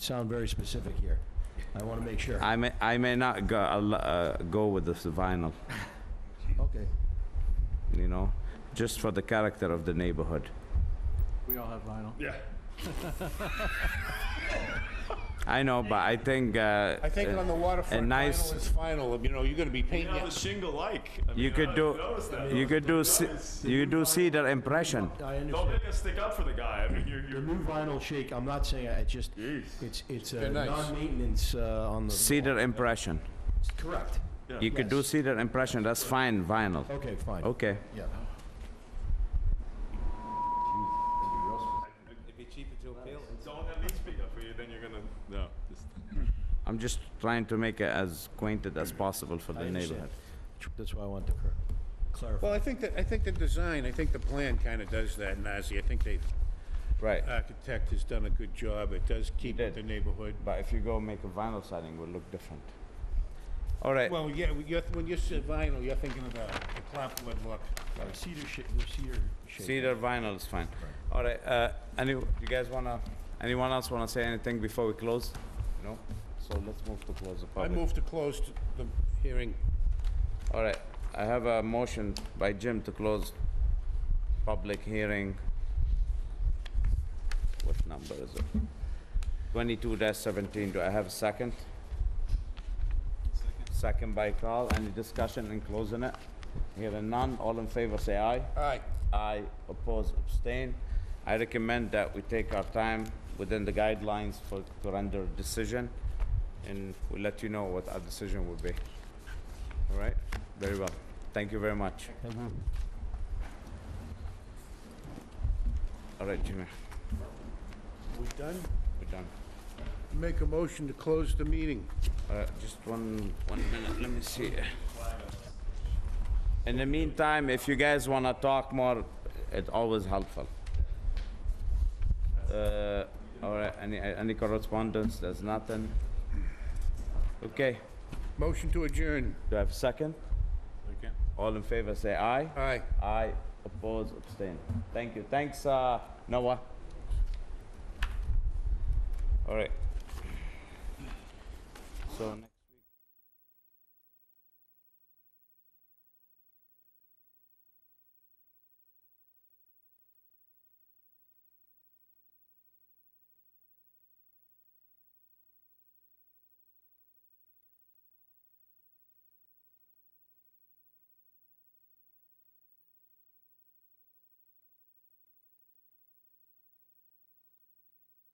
sound very specific here. I want to make sure. I may, I may not go, al- uh, go with this vinyl, Okay. you know, just for the character of the neighborhood. We all have vinyl. I know, but I think, uh, I think uh, on the waterfront, a nice- final is final, you know, you're gonna be painting. the shingle like. you could do, you could do, ce- you could do cedar impression. I Don't understand. make us stick up for the guy. I mean, you're, The you're new vinyl shake, I'm not saying, I- it's just, it's, it's a They're nice. non-maintenance uh, on the. Cedar impression. Correct. You could do Yes. cedar impression, that's fine, vinyl. Okay, fine. Okay. Yeah. don't at least speak up for you. Then you're gonna no. Just, I'm just trying to make it as quainted as possible for I the understand. neighborhood. That's why I wanted to cor- clarify. Well, I think that, I think the design, I think the plan kinda does that, Nazi. I think the Right. architect has done a good job. It does keep did. the neighborhood. But if you go make a vinyl siding, it will look different. All right, Well, yeah, when you're, when you say vinyl, you're thinking of the the clapboard look. Sorry, Cedar shake, the cedar shake. cedar vinyl is fine. All right, uh, any, you guys wanna, anyone else wanna say anything before we close? No? So let's move to close the I public. move to close t- the hearing. All right, I have a motion by Jim to close public hearing. What number is it? Twenty-two seventeen, do I have a second? Second by Carl, any discussion in closing it? Hearing none, all in favor say aye. All right, Aye, oppose, abstain. I recommend that we take our time within the guidelines for, to render a decision, and we'll let you know what our decision will be. All right? Very well. Thank you very much. All right, Jimmy, we done? we're done. Make a motion to close the meeting. Uh, just one, one minute, let me see. In the meantime, if you guys wanna talk more, it's always helpful. Uh, all right, any, any correspondence? There's nothing. Okay, Motion to adjourn. do I have a second? okay. All in favor, say aye. Aye. Aye, oppose, abstain. Thank you. Thanks, uh, Noah. All right. So.